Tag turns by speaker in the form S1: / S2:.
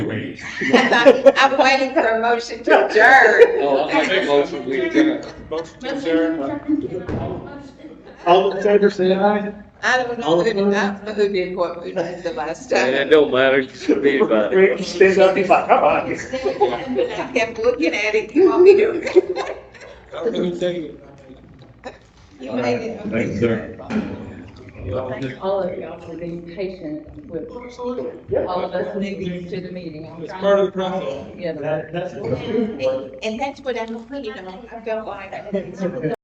S1: please.
S2: I'm waiting for a motion to adjourn.
S1: Well, I make a motion, we adjourn.
S3: Motion to adjourn.
S4: All in favor, say aye.
S2: I don't know who, I don't know who did what we did the last
S1: And it
S2: time.
S1: don't matter to anybody.
S4: Rick stands up, he's like, come on.
S2: I kept looking at it, you want me to?
S3: I really think.
S2: You made it.
S1: Thanks, sir.
S5: Thank all of y'all for being patient with all of us newbies to the meeting. I'm
S3: It's
S5: trying
S3: part
S5: to
S3: of the process.
S5: get together.
S4: That- That's what
S2: And that's what I'm, you know, I felt like.